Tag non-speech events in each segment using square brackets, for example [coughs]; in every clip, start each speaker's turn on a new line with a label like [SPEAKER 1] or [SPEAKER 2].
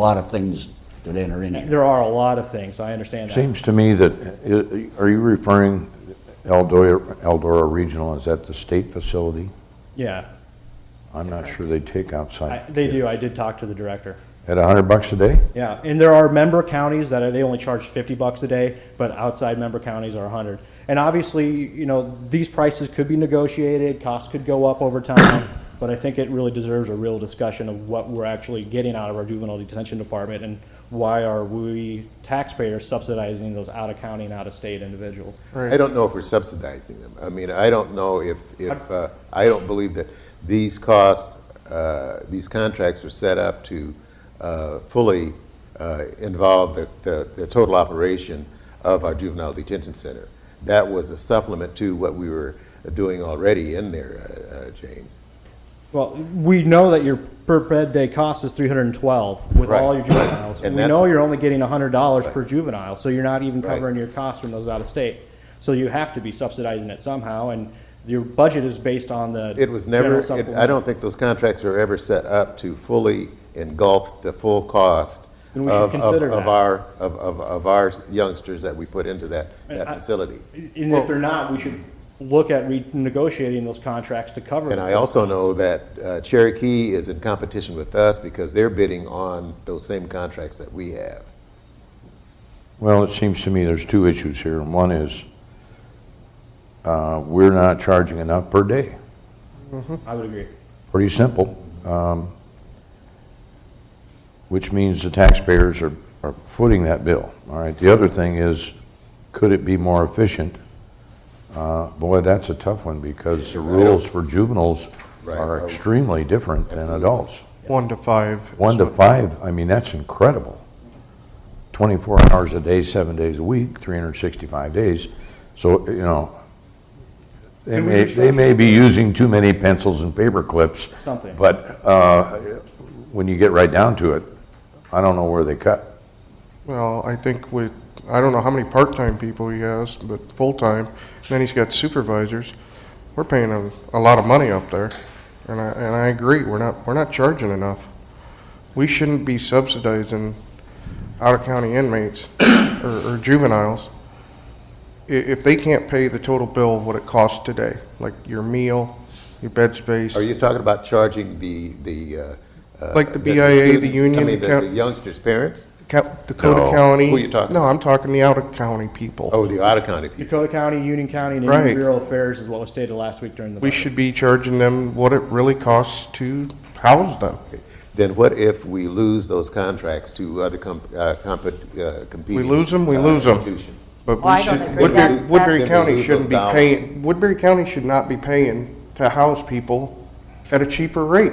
[SPEAKER 1] a lot of things that enter in here.
[SPEAKER 2] There are a lot of things, I understand that.
[SPEAKER 3] Seems to me that, i- are you referring Eldora, Eldora Regional, is that the state facility?
[SPEAKER 2] Yeah,
[SPEAKER 3] I'm not sure they take
[SPEAKER 2] I-
[SPEAKER 3] outside.
[SPEAKER 2] they do, I
[SPEAKER 3] kids.
[SPEAKER 2] did talk to the director.
[SPEAKER 3] At a hundred bucks a day?
[SPEAKER 2] Yeah, and there are member counties that are, they only charge fifty bucks a day, but outside member counties are a hundred. And obviously, you know, these prices could be negotiated, costs could go up over time, but I think it really deserves a real discussion of what we're actually getting out of our juvenile detention department and why are we taxpayers subsidizing those out-of-county and out-of-state individuals?
[SPEAKER 4] I don't know if we're subsidizing them. I mean, I don't know if, if, uh, I don't believe that these costs, uh, these contracts were set up to uh, fully uh, involve the, the, the total operation of our juvenile detention center. That was a supplement to what we were doing already in there, uh, uh, James.
[SPEAKER 2] Well, we know that your per bed day cost is three hundred and twelve with all
[SPEAKER 4] Right.
[SPEAKER 2] your juveniles. We
[SPEAKER 4] And that's-
[SPEAKER 2] know you're only getting hundred dollars per juvenile, so you're not even
[SPEAKER 4] Right.
[SPEAKER 2] covering your costs from those out of state. So you have to be subsidizing it somehow, and your budget is based on the.
[SPEAKER 4] It was never,
[SPEAKER 2] general
[SPEAKER 4] it- I
[SPEAKER 2] supplement.
[SPEAKER 4] don't think those contracts were ever set up to fully engulf the full cost
[SPEAKER 2] Then we should
[SPEAKER 4] of, of-
[SPEAKER 2] consider
[SPEAKER 4] of
[SPEAKER 2] that.
[SPEAKER 4] our, of, of, of our youngsters that we put into that, that
[SPEAKER 2] I-
[SPEAKER 4] facility.
[SPEAKER 2] And if they're not, we should look at renegotiating those contracts to cover.
[SPEAKER 4] And I
[SPEAKER 2] it.
[SPEAKER 4] also know that uh, Cherokee is in competition with us because they're bidding on those same contracts that we have.
[SPEAKER 3] Well, it seems to me there's two issues here. And One is, uh, we're not charging enough per day.
[SPEAKER 2] I would agree.
[SPEAKER 3] Pretty simple. Um, Which means the taxpayers are, are footing that bill, all right? The other thing is, could it be more efficient? Uh, Boy, that's a tough one, because the rules for juveniles
[SPEAKER 4] Right. oh,
[SPEAKER 3] are extremely different than
[SPEAKER 4] Absolutely.
[SPEAKER 3] adults.
[SPEAKER 5] One to five. is
[SPEAKER 3] One to
[SPEAKER 5] what-
[SPEAKER 3] five, I mean, that's incredible. 24 hours a day, seven days a week, 365 days. So, you know, they
[SPEAKER 2] Can we
[SPEAKER 3] may, they
[SPEAKER 2] restructure
[SPEAKER 3] may be using too many pencils and paper clips.
[SPEAKER 2] Something.
[SPEAKER 3] But uh, when you get right down to it, I don't know where they cut.
[SPEAKER 5] Well, I think with, I don't know how many part-time people he has, but full-time, then he's got supervisors. We're paying him a lot of money up there, and I, and I agree, we're not, we're not charging enough. We shouldn't be subsidizing out-of-county inmates [coughs] or or juveniles i- if they can't pay the total bill of what it costs today, like your meal, your bed space.
[SPEAKER 4] Are you talking about charging the, the? uh, uh,
[SPEAKER 5] Like the BIA, the
[SPEAKER 4] students-
[SPEAKER 5] union,
[SPEAKER 4] I mean, the-
[SPEAKER 5] count-
[SPEAKER 4] the youngsters' parents?
[SPEAKER 5] Ca- Dakota
[SPEAKER 3] No.
[SPEAKER 5] County.
[SPEAKER 4] Who you talking
[SPEAKER 5] No,
[SPEAKER 4] about?
[SPEAKER 5] I'm talking the out-of-county people.
[SPEAKER 4] Oh, the out-of-county people.
[SPEAKER 2] Dakota County, Union County, and
[SPEAKER 5] Right.
[SPEAKER 2] Indian Bureau of Affairs is what was stated last week during the.
[SPEAKER 5] We
[SPEAKER 2] budget.
[SPEAKER 5] should be charging them what it really costs to house them.
[SPEAKER 4] Then what if we lose those contracts to other com- uh, compet- uh, competing?
[SPEAKER 5] lose 'em, we
[SPEAKER 4] uh,
[SPEAKER 5] lose 'em.
[SPEAKER 4] institution?
[SPEAKER 5] But
[SPEAKER 6] Well, I
[SPEAKER 5] we
[SPEAKER 6] don't
[SPEAKER 5] should,
[SPEAKER 6] agree.
[SPEAKER 5] Woodbury,
[SPEAKER 6] That's-
[SPEAKER 5] Woodbury
[SPEAKER 4] that's-
[SPEAKER 5] County
[SPEAKER 4] Those
[SPEAKER 5] shouldn't be
[SPEAKER 4] dollars.
[SPEAKER 5] paying, Woodbury County should not be paying to house people at a cheaper rate.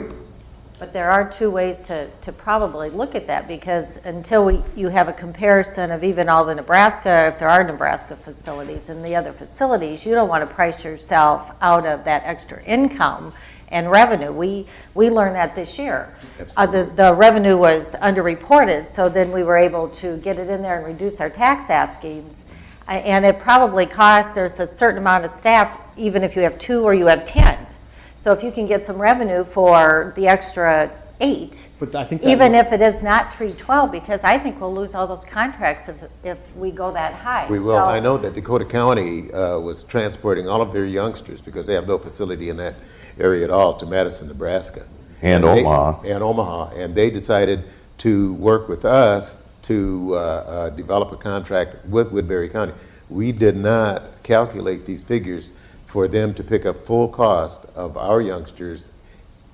[SPEAKER 6] But there are two ways to, to probably look at that, because until we, you have a comparison of even all the Nebraska, if there are Nebraska facilities and the other facilities, you don't want to price yourself out of that extra income and revenue. We, we learned that this year. Uh, the, the revenue was underreported, so then we were able to get it in there and reduce our tax askings. A- And it probably costs, there's a certain amount of staff, even if you have two or you have 10. So if you can get some revenue for the extra eight,
[SPEAKER 2] But I think that
[SPEAKER 6] even
[SPEAKER 2] would-
[SPEAKER 6] if it is not three twelve, because I think we'll lose all those contracts if, if we go that high.
[SPEAKER 4] We will.
[SPEAKER 6] So-
[SPEAKER 4] I know that Dakota County uh, was transporting all of their youngsters, because they have no facility in that area at all, to Madison, Nebraska.
[SPEAKER 3] And
[SPEAKER 4] they-
[SPEAKER 3] Omaha.
[SPEAKER 4] And Omaha. And they decided to work with us to uh, uh, develop a contract with Woodbury County. We did not calculate these figures for them to pick up full cost of our youngsters,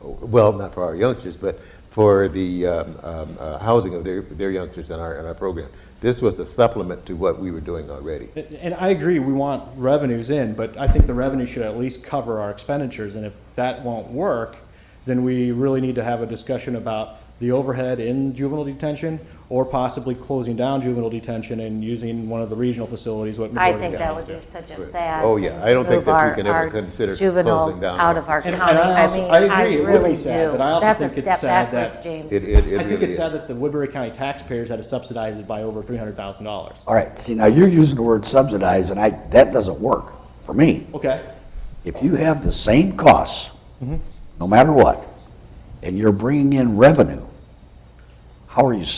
[SPEAKER 4] well, not for our youngsters, but for the um, um, uh, housing of their, their youngsters in our, in our program. This was a supplement to what we were doing already.
[SPEAKER 2] And I agree, we want revenues in, but I think the revenue should at least cover our expenditures, and if that won't work, then we really need to have a discussion about the overhead in juvenile detention, or possibly closing down juvenile detention and using one of the regional facilities, what
[SPEAKER 6] I
[SPEAKER 2] Missouri
[SPEAKER 6] think
[SPEAKER 2] County
[SPEAKER 6] that would be
[SPEAKER 2] does.
[SPEAKER 6] such a sad.
[SPEAKER 4] Oh, yeah.
[SPEAKER 6] thing
[SPEAKER 4] I don't
[SPEAKER 6] to
[SPEAKER 4] think
[SPEAKER 6] move
[SPEAKER 4] that we
[SPEAKER 6] our-
[SPEAKER 4] can ever
[SPEAKER 6] our
[SPEAKER 4] consider
[SPEAKER 6] Juveniles
[SPEAKER 4] closing down
[SPEAKER 6] out
[SPEAKER 4] our
[SPEAKER 6] of our
[SPEAKER 2] facilities. And-
[SPEAKER 6] county.
[SPEAKER 2] and I
[SPEAKER 6] I
[SPEAKER 2] also-
[SPEAKER 6] mean,
[SPEAKER 2] I agree,
[SPEAKER 6] I
[SPEAKER 2] it would be
[SPEAKER 6] really
[SPEAKER 2] sad,
[SPEAKER 6] do.
[SPEAKER 2] but I also
[SPEAKER 6] That's a
[SPEAKER 2] think it's
[SPEAKER 6] step
[SPEAKER 2] sad that-
[SPEAKER 6] backwards, James.
[SPEAKER 4] It, it, it
[SPEAKER 2] I think
[SPEAKER 4] really
[SPEAKER 2] it's
[SPEAKER 4] is.
[SPEAKER 2] sad that the Woodbury County taxpayers had to subsidize it by over three hundred thousand dollars.
[SPEAKER 1] All right, see, now you're using the word subsidize, and I, that doesn't work for me.
[SPEAKER 2] Okay,
[SPEAKER 1] If you have the same costs, no matter what, and you're bringing in revenue, how are you